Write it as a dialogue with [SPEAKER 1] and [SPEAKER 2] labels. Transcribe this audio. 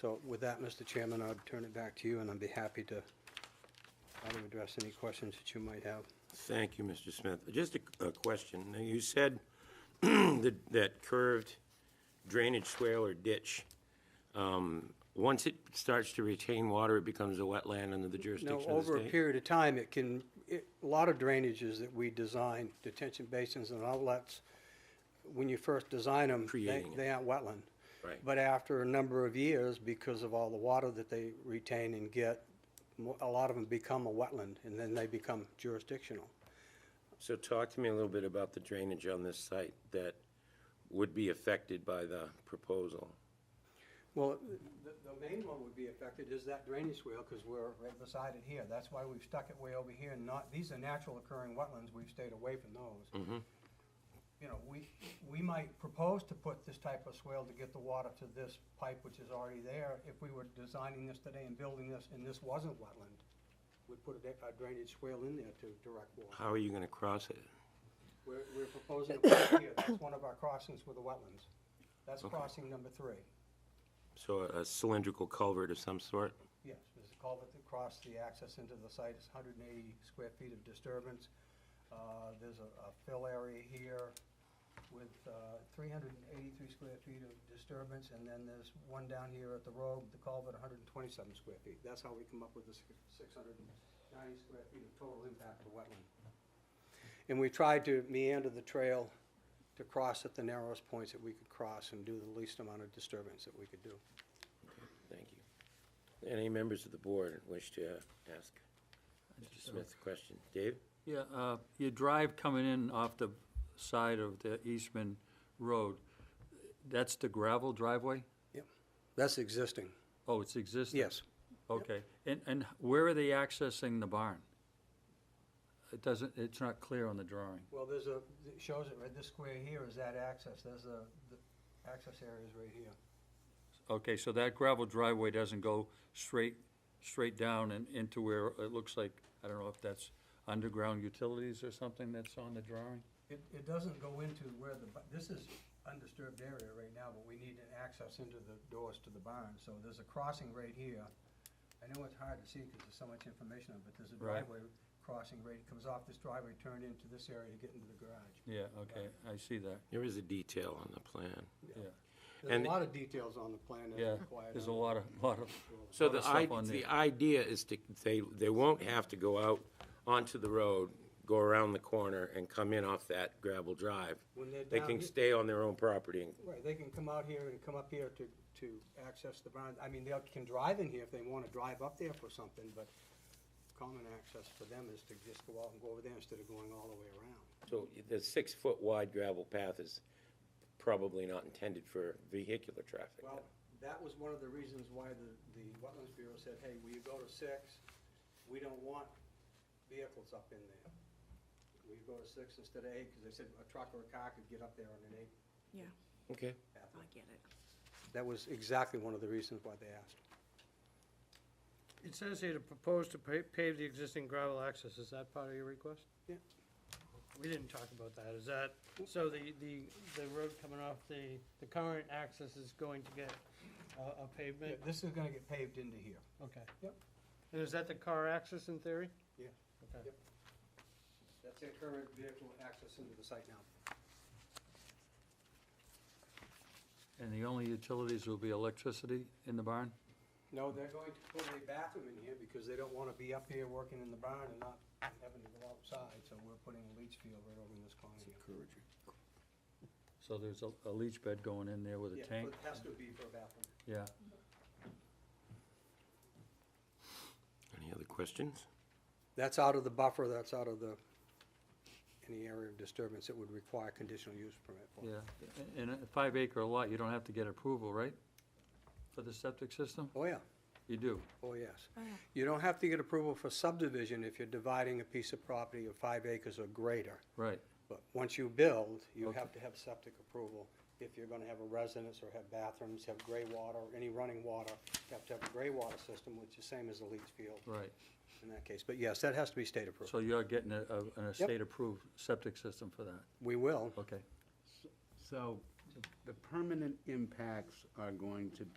[SPEAKER 1] So with that, Mr. Chairman, I'll turn it back to you, and I'd be happy to try to address any questions that you might have.
[SPEAKER 2] Thank you, Mr. Smith. Just a, a question. Now, You said that, that curved drainage swale or ditch, um, once it starts to retain water, it becomes a wetland under the jurisdiction
[SPEAKER 1] No,
[SPEAKER 2] of the
[SPEAKER 1] over a
[SPEAKER 2] state?
[SPEAKER 1] period of time, it can, it- a lot of drainages that we design, detention basins and outlets, when you first design them, they,
[SPEAKER 2] Creating it.
[SPEAKER 1] they aren't wetland.
[SPEAKER 2] Right.
[SPEAKER 1] But after a number of years, because of all the water that they retain and get, mo- a lot of them become a wetland, and then they become jurisdictional.
[SPEAKER 2] So talk to me a little bit about the drainage on this site that would be affected by the proposal.
[SPEAKER 1] Well, the, the main one would be affected is that drainage swale, because we're right beside it here. That's why we've stuck it way over here and not, these are natural occurring wetlands, we've stayed away from those. You know, we, we might propose to put this type of swale to get the water to this pipe, which is already there. If we were designing this today and building this, and this wasn't wetland, we'd put a da- a drainage swale in there to direct water.
[SPEAKER 2] How are you gonna cross it?
[SPEAKER 1] We're, we're proposing to put it here, that's one of our crossings with the wetlands. That's crossing number three.
[SPEAKER 2] So a a cylindrical culvert of some sort?
[SPEAKER 1] Yes, there's a culvert that crossed the access into the site, it's hundred and eighty square feet of disturbance. Uh, there's a, a fill area here with, uh, three hundred and eighty-three square feet of disturbance, and then there's one down here at the road, the culvert, hundred and twenty-seven square feet. That's how we come up with the six hundred and ninety square feet of total impact to wetland. And we tried to meander the trail to cross at the narrowest points that we could cross and do the least amount of disturbance that we could do.
[SPEAKER 2] Thank you. Any members of the board wish to ask Mr. Smith a question? Dave?
[SPEAKER 3] Yeah, uh, your drive coming in off the side of the Eastman Road, that's the gravel driveway?
[SPEAKER 1] Yep, that's existing,
[SPEAKER 3] Oh, it's existing?
[SPEAKER 1] yes.
[SPEAKER 3] Okay, and, and where are they accessing the barn? It doesn't, it's not clear on the drawing.
[SPEAKER 1] Well, there's a, it shows it right, this square here is that access, there's a, the access area is right here.
[SPEAKER 3] Okay, so that gravel driveway doesn't go straight, straight down and into where it looks like, I don't know if that's underground utilities or something that's on the drawing?
[SPEAKER 1] It, it doesn't go into where the, bu- this is undisturbed area right now, but we need an access into the doors to the barn, so there's a crossing right here. I know it's hard to see because there's so much information on it, but there's a
[SPEAKER 3] Right.
[SPEAKER 1] driveway crossing right, it comes off this driveway, turned into this area to get into the garage.
[SPEAKER 3] Yeah, okay, I see that,
[SPEAKER 2] There is a detail on the plan.
[SPEAKER 3] yeah.
[SPEAKER 1] There's
[SPEAKER 2] And-
[SPEAKER 1] a lot of details on the plan that's
[SPEAKER 3] Yeah,
[SPEAKER 1] required.
[SPEAKER 3] there's a
[SPEAKER 1] on it.
[SPEAKER 3] lot of, lot of,
[SPEAKER 2] So
[SPEAKER 3] lot
[SPEAKER 2] the
[SPEAKER 3] of stuff
[SPEAKER 2] i-
[SPEAKER 3] on there.
[SPEAKER 2] the idea is to, they, they won't have to go out onto the road, go around the corner and come in off that gravel drive.
[SPEAKER 1] When they're
[SPEAKER 2] They
[SPEAKER 1] down
[SPEAKER 2] can
[SPEAKER 1] here-
[SPEAKER 2] stay on their own property and
[SPEAKER 1] Right, they can come out here and come up here to, to access the barn. I mean, they can drive in here if they want to drive up there for something, but common access for them is to just go out and go over there instead of going all the way around.
[SPEAKER 2] So the six-foot wide gravel path is probably not intended for vehicular traffic.
[SPEAKER 1] Well, that was one of the reasons why the, the Wetlands Bureau said, hey, will you go to six? We don't want vehicles up in there. Will you go to six instead of eight? Because they said a truck or a car could get up there on an eight
[SPEAKER 4] Yeah,
[SPEAKER 2] Okay.
[SPEAKER 4] I get it.
[SPEAKER 1] That was exactly one of the reasons why they asked.
[SPEAKER 5] It says here to propose to pa- pave the existing gravel access, is that part of your request?
[SPEAKER 1] Yeah.
[SPEAKER 5] We didn't talk about that, is that, so the, the, the road coming off the, the current access is going to get a a pavement?
[SPEAKER 1] This is going to get paved into here.
[SPEAKER 5] Okay.
[SPEAKER 1] Yep.
[SPEAKER 5] And is that the car access in theory?
[SPEAKER 1] Yeah.
[SPEAKER 5] Okay.
[SPEAKER 1] Yep. That's their current vehicle access into the site now.
[SPEAKER 3] and the only utilities will be electricity in the barn?
[SPEAKER 1] No, they're going to put a bathroom in here because they don't want to be up here working in the barn and not having to go outside, so we're putting a leach field right over in this corner here.
[SPEAKER 3] So there's a- a leach bed going in there with a
[SPEAKER 1] Yeah,
[SPEAKER 3] tank?
[SPEAKER 1] but it has to be for a bathroom.
[SPEAKER 3] Yeah,
[SPEAKER 2] Any other questions?
[SPEAKER 1] That's out of the buffer, that's out of the, any area of disturbance that would require conditional use permit for.
[SPEAKER 3] yeah. In a five acre lot, you don't have to get approval, right? For the septic system?
[SPEAKER 1] Oh, yeah,
[SPEAKER 3] You do.
[SPEAKER 1] oh, yes. You don't have to get approval for subdivision if you're dividing a piece of property of five acres or greater.
[SPEAKER 3] Right,
[SPEAKER 1] But once you build, you
[SPEAKER 3] Okay.
[SPEAKER 1] have to have septic approval. If you're gonna have a residence or have bathrooms, have gray water, any running water, you have to have a gray water system, which is same as the leach field
[SPEAKER 3] right.
[SPEAKER 1] in that case. But yes, that has to be state approved.
[SPEAKER 3] So you're getting a, a- an estate-approved septic system for that?
[SPEAKER 1] We will.
[SPEAKER 3] Okay.
[SPEAKER 6] So the permanent impacts are going to be.